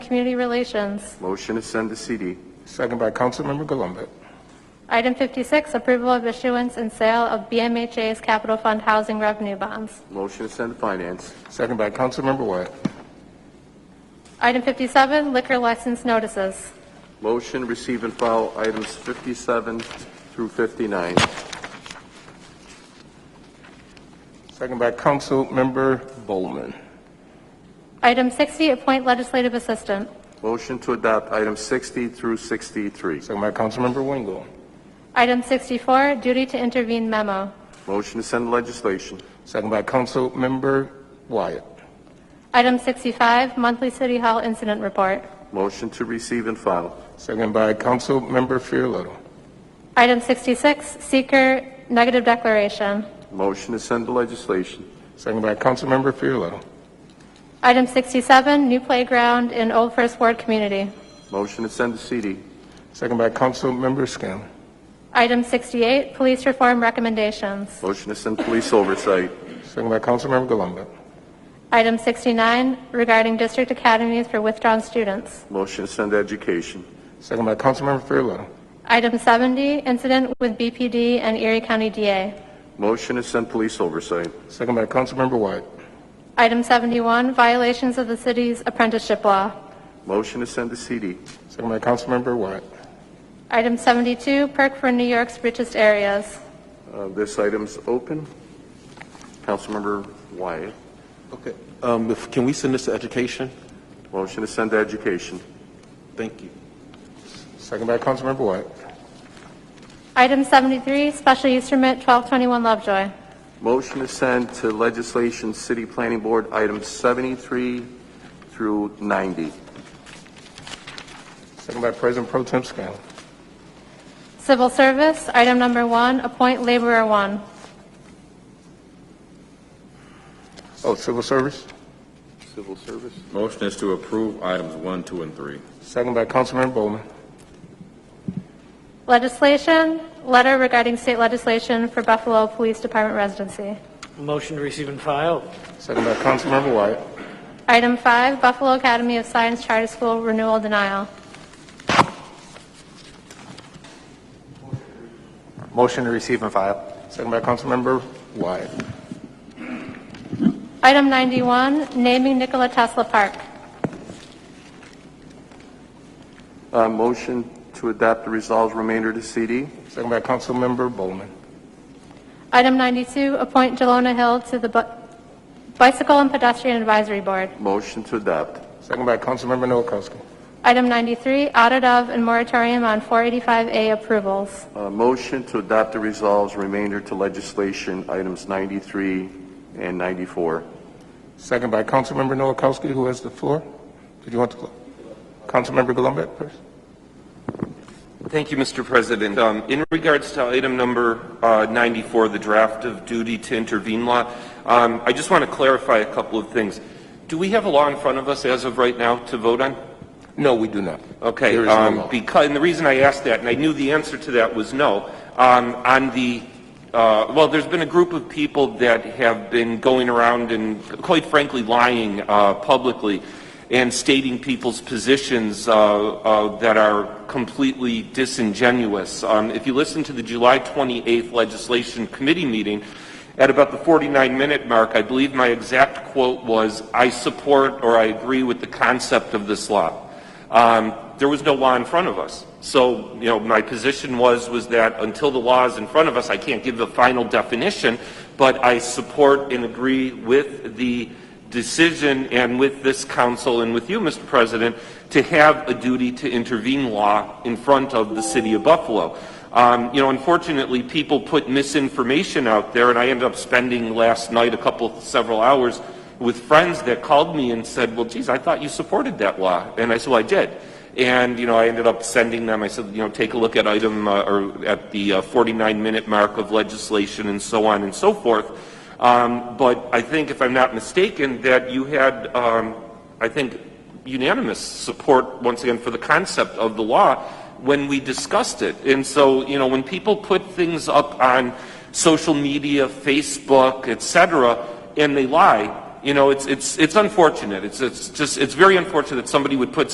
Community Relations. Motion to send to CD. Second by Councilmember Galunde. Item 56, approval of issuance and sale of BMHA's Capital Fund Housing Revenue Bonds. Motion to send to Finance. Second by Councilmember Wyatt. Item 57, liquor license notices. Motion receive and file items 57 through 59. Second by Councilmember Bowman. Item 60, appoint legislative assistant. Motion to adopt items 60 through 63. Second by Councilmember Wingo. Item 64, duty to intervene memo. Motion to send legislation. Second by Councilmember Wyatt. Item 65, monthly city hall incident report. Motion to receive and file. Second by Councilmember Farrelletto. Item 66, seeker negative declaration. Motion to send to legislation. Second by Councilmember Farrelletto. Item 67, new playground in Old First Ward community. Motion to send to CD. Second by Councilmember Scanlon. Item 68, police reform recommendations. Motion to send police oversight. Second by Councilmember Galunde. Item 69, regarding district academies for withdrawn students. Motion to send to education. Second by Councilmember Farrelletto. Item 70, incident with BPD and Erie County DA. Motion to send police oversight. Second by Councilmember Wyatt. Item 71, violations of the city's apprenticeship law. Motion to send to CD. Second by Councilmember Wyatt. Item 72, perk for New York's richest areas. Uh, This item's open. Councilmember Wyatt. Okay, um, if, can we send this to education? Motion to send to education. Thank you. Second by Councilmember Wyatt. Item 73, special use permit 1221 Lovejoy. Motion to send to legislation, city planning board, items 73 through 90. Second by President Pro Tem Scanlon. Civil service, item number one, appoint laborer one. Oh, Civil Service. Civil service. Motion is to approve items one, two, and three. Second by Councilmember Bowman. Legislation, letter regarding state legislation for Buffalo Police Department residency. Motion to receive and file. Second by Councilmember Wyatt. Item five, Buffalo Academy of Science Charter School renewal denial. Motion to receive and file. Second by Councilmember Wyatt. Item 91, naming Nikola Tesla Park. Uh, Motion to adopt the resolves remainder to CD. Second by Councilmember Bowman. Item 92, appoint Jelona Hill to the Bu- Bicycle and Pedestrian Advisory Board. Motion to adopt. Second by Councilmember Noakowski. Item 93, audit of and moratorium on 485A approvals. Uh, Motion to adopt the resolves remainder to legislation, items 93 and 94. Second by Councilmember Noakowski, who has the floor. Did you want the floor? Councilmember Golombek first. Thank you, Mr. President. Um, In regards to item number uh, 94, the draft of duty to intervene law, um, I just want to clarify a couple of things. Do we have a law in front of us as of right now to vote on? No, we do not. Okay, There is no um, law. because, and the reason I asked that, and I knew the answer to that was no, um, on the, uh, well, there's been a group of people that have been going around and, quite frankly, lying uh, publicly and stating people's positions uh, uh, that are completely disingenuous. Um, If you listen to the July 28th Legislation Committee meeting, at about the 49-minute mark, I believe my exact quote was, "I support or I agree with the concept of this law." Um, there was no law in front of us. So, you know, my position was, was that until the law is in front of us, I can't give the final definition, but I support and agree with the decision and with this council and with you, Mr. President, to have a duty to intervene law in front of the city of Buffalo. Um, you know, unfortunately, people put misinformation out there, and I ended up spending last night a couple, several hours with friends that called me and said, well, geez, I thought you supported that law. And I said, well, I did. And, you know, I ended up sending them, I said, you know, take a look at item, uh, or at the 49-minute mark of legislation and so on and so forth. Um, But I think, if I'm not mistaken, that you had, um, I think, unanimous support, once again, for the concept of the law when we discussed it. And so, you know, when people put things up on social media, Facebook, et cetera, and they lie, you know, it's, it's, it's unfortunate. It's, it's just, it's very unfortunate that somebody would put